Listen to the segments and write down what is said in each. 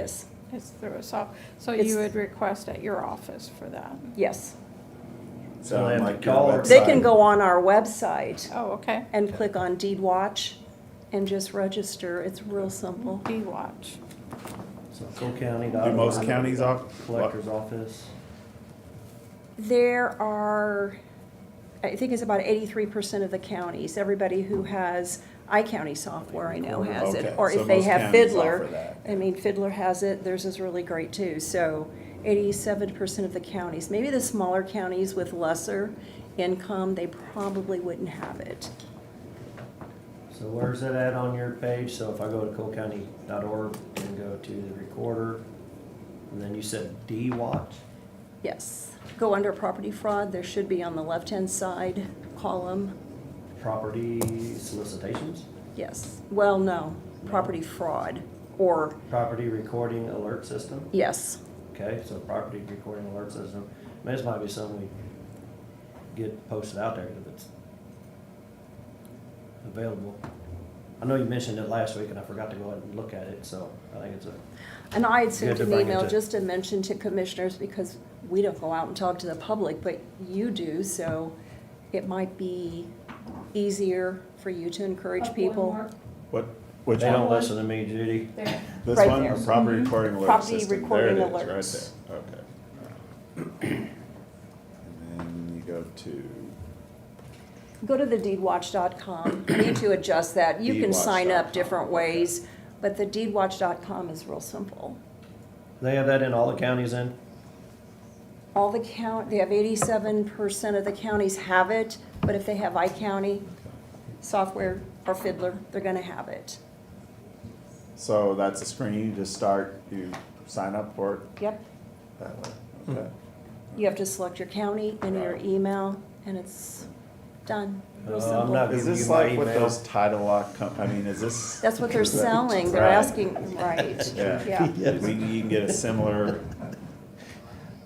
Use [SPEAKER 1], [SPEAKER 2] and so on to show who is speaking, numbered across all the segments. [SPEAKER 1] Yes,
[SPEAKER 2] It's through us all. So
[SPEAKER 1] It's-
[SPEAKER 2] you would request at your office for that?
[SPEAKER 1] yes.
[SPEAKER 3] So I
[SPEAKER 4] They'll have
[SPEAKER 3] might
[SPEAKER 4] to
[SPEAKER 3] go
[SPEAKER 4] call
[SPEAKER 3] on
[SPEAKER 4] or-
[SPEAKER 3] website.
[SPEAKER 1] They can go on our website
[SPEAKER 2] Oh, okay.
[SPEAKER 1] and click on Deed Watch and just register. It's real simple.
[SPEAKER 2] D-Watch.
[SPEAKER 4] So Cole County.
[SPEAKER 3] Do most counties off?
[SPEAKER 4] Collector's office.
[SPEAKER 1] There are, I think it's about eighty-three percent of the counties, everybody who has iCounty software I know has
[SPEAKER 3] Okay,
[SPEAKER 1] it. Or
[SPEAKER 3] so
[SPEAKER 1] if they
[SPEAKER 3] most
[SPEAKER 1] have
[SPEAKER 3] counties
[SPEAKER 1] Fiddler,
[SPEAKER 3] offer that.
[SPEAKER 1] I mean, Fiddler has it, theirs is really great too. So eighty-seven percent of the counties, maybe the smaller counties with lesser income, they probably wouldn't have it.
[SPEAKER 4] So where's it at on your page? So if I go to colecounty.org and go to the recorder, and then you said D-Watch?
[SPEAKER 1] Yes. Go under property fraud, there should be on the left-hand side column,
[SPEAKER 4] Property solicitations?
[SPEAKER 1] yes. Well, no, property fraud, or,
[SPEAKER 4] Property recording alert system?
[SPEAKER 1] yes,
[SPEAKER 4] Okay, so property recording alert system. I mean, this might be something we get posted out there if it's available. I know you mentioned it last week and I forgot to go ahead and look at it, so I think it's a
[SPEAKER 1] And I had
[SPEAKER 4] You had
[SPEAKER 1] sent
[SPEAKER 4] to
[SPEAKER 1] an
[SPEAKER 4] bring it
[SPEAKER 1] email
[SPEAKER 4] to-
[SPEAKER 1] just to mention to commissioners, because we don't go out and talk to the public, but you do, so it might be easier for you to encourage people.
[SPEAKER 3] What, which
[SPEAKER 4] They don't
[SPEAKER 3] one?
[SPEAKER 4] listen to me, Judy.
[SPEAKER 3] This
[SPEAKER 1] Right
[SPEAKER 3] one,
[SPEAKER 1] there.
[SPEAKER 3] Or Mm-hmm. property recording alert
[SPEAKER 1] Property
[SPEAKER 3] system, there it
[SPEAKER 1] recording
[SPEAKER 3] is, right there,
[SPEAKER 1] alerts.
[SPEAKER 3] okay. And then you go to,
[SPEAKER 1] Go to the deedwatch.com, I need to adjust that, you can sign up
[SPEAKER 3] Deedwatch.com,
[SPEAKER 1] different
[SPEAKER 3] okay.
[SPEAKER 1] ways, but the deedwatch.com is real simple.
[SPEAKER 4] They have that in all the counties in?
[SPEAKER 1] All the count, they have eighty-seven percent of the counties have it, but if they have iCounty software or Fiddler, they're gonna have it.
[SPEAKER 3] so that's a screen, you just start, you sign up for it
[SPEAKER 1] Yep,
[SPEAKER 3] that way, okay.
[SPEAKER 1] you have to select your county and your
[SPEAKER 3] Right.
[SPEAKER 1] email, and it's done, real
[SPEAKER 4] Oh, I'm not
[SPEAKER 1] simple.
[SPEAKER 3] Is
[SPEAKER 4] Give
[SPEAKER 3] this
[SPEAKER 4] you my
[SPEAKER 3] like with
[SPEAKER 4] email.
[SPEAKER 3] those title lock com, I mean, is this?
[SPEAKER 1] That's what they're
[SPEAKER 3] is that-
[SPEAKER 1] selling, they're
[SPEAKER 3] Right.
[SPEAKER 1] asking, right,
[SPEAKER 3] Yeah,
[SPEAKER 1] yeah.
[SPEAKER 4] Yes.
[SPEAKER 3] we, you can get a similar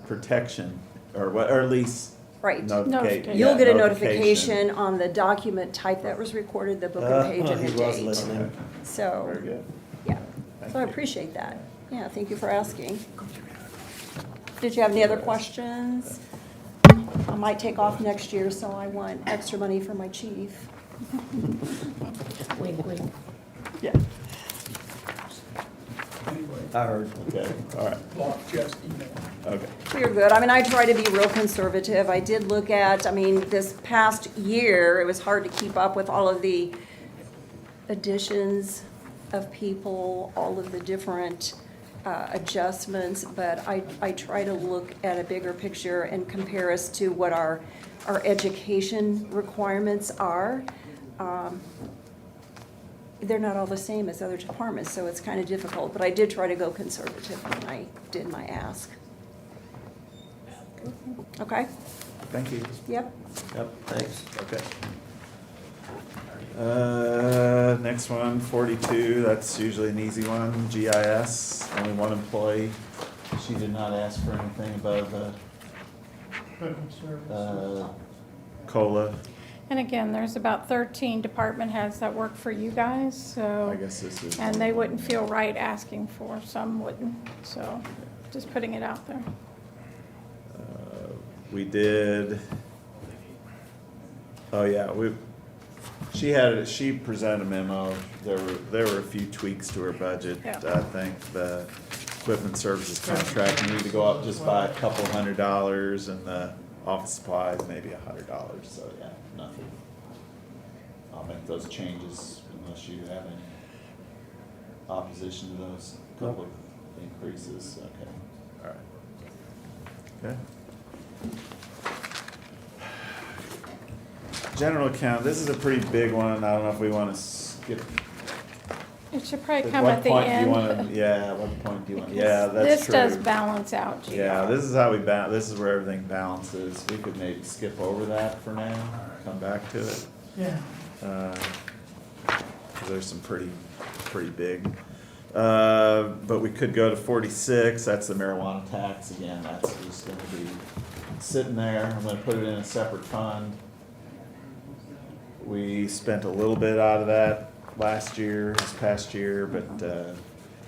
[SPEAKER 3] protection, or what, or at least.
[SPEAKER 1] Right.
[SPEAKER 3] notification.
[SPEAKER 2] Notification.
[SPEAKER 1] You'll get a notification on the document type that was recorded, the book and page
[SPEAKER 4] Uh,
[SPEAKER 1] and the
[SPEAKER 4] He was
[SPEAKER 1] date,
[SPEAKER 4] listening.
[SPEAKER 3] Very
[SPEAKER 1] so,
[SPEAKER 3] good.
[SPEAKER 1] yeah,
[SPEAKER 3] Thank
[SPEAKER 1] so I
[SPEAKER 3] you.
[SPEAKER 1] appreciate that, yeah, thank you for asking. Did you have any other questions? I might take off next year, so I want extra money for my chief.
[SPEAKER 5] Wink, wink.
[SPEAKER 1] Yeah.
[SPEAKER 6] Anyway,
[SPEAKER 4] I heard.
[SPEAKER 3] Okay, all right,
[SPEAKER 6] block just email.
[SPEAKER 3] okay.
[SPEAKER 1] You're good. I mean, I try to be real conservative. I did look at, I mean, this past year, it was hard to keep up with all of the additions of people, all of the different uh, adjustments, but I, I try to look at a bigger picture and compare us to what our, our education requirements are. Um, They're not all the same as other departments, so it's kind of difficult, but I did try to go conservative when I did my ask. Okay,
[SPEAKER 3] Thank you.
[SPEAKER 1] yep.
[SPEAKER 4] Yep, thanks.
[SPEAKER 3] Okay. Uh, next one, forty-two, that's usually an easy one, GIS, only one employee. She did not ask for anything above, uh, uh, COLA,
[SPEAKER 2] And again, there's about 13 department heads that work for you guys,
[SPEAKER 3] I
[SPEAKER 2] so,
[SPEAKER 3] guess this is.
[SPEAKER 2] and they wouldn't feel right asking for, some wouldn't, so just putting it out there.
[SPEAKER 3] Uh, We did. Oh, yeah, we, she had, she presented a memo, there were, there were a few tweaks to her budget.
[SPEAKER 2] Yeah.
[SPEAKER 3] I think the equipment services contract needed to go up just by a couple hundred dollars and the office supplies maybe a hundred dollars, so yeah, nothing. I'll make those changes unless you have any opposition to those couple of increases, okay, all right. Okay. General account, this is a pretty big one, I don't know if we wanna skip.
[SPEAKER 2] It should probably
[SPEAKER 3] At
[SPEAKER 2] come
[SPEAKER 3] what
[SPEAKER 2] at the
[SPEAKER 3] point do you wanna-
[SPEAKER 2] end.
[SPEAKER 3] Yeah, at what point do you want,
[SPEAKER 2] because
[SPEAKER 3] yeah, that's true.
[SPEAKER 2] This does balance out, Gina.
[SPEAKER 3] Yeah, this is how we ba, this is where everything balances, we could maybe skip over that for now, come back to it.
[SPEAKER 6] Yeah.
[SPEAKER 3] Uh, 'cause There's some pretty, pretty big. Uh, But we could go to forty-six, that's the marijuana tax, again, that's just gonna be sitting there, I'm gonna put it in a separate fund. We spent a little bit out of that last year, this past year, but, uh,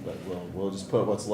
[SPEAKER 3] but we'll, we'll just put what's left